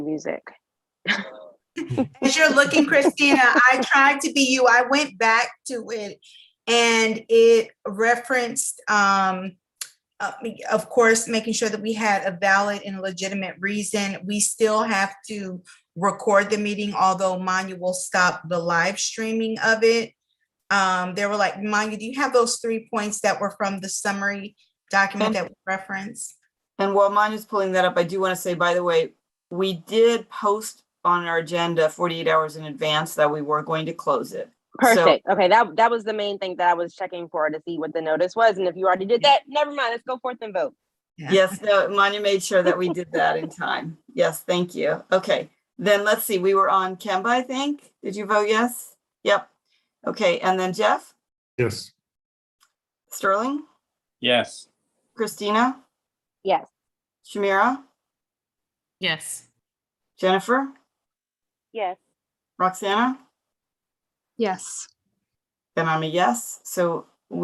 music. As you're looking, Christina, I tried to be you. I went back to it and it referenced, um, uh, of course, making sure that we had a valid and legitimate reason. We still have to record the meeting, although Manya will stop the live streaming of it. Um, there were like, Manya, do you have those three points that were from the summary document that we referenced? And while Manya's pulling that up, I do want to say, by the way, we did post on our agenda 48 hours in advance that we were going to close it. So- Perfect. okay, that that was the main thing that I was checking for to see what the notice was, and if you already did that, never mind. Let's go forth and vote. Yeah. Yes, no, Manya made sure that we did that in time. Yes, thank you. Okay, then let's see, we were on Kemba, I think. Did you vote yes? Yep. Okay, and then Jeff, Yes. Sterling, Yes. Christina, Yes. Shamira, Yes. Jennifer, Yes. Roxana? Yes. And I'm a yes, so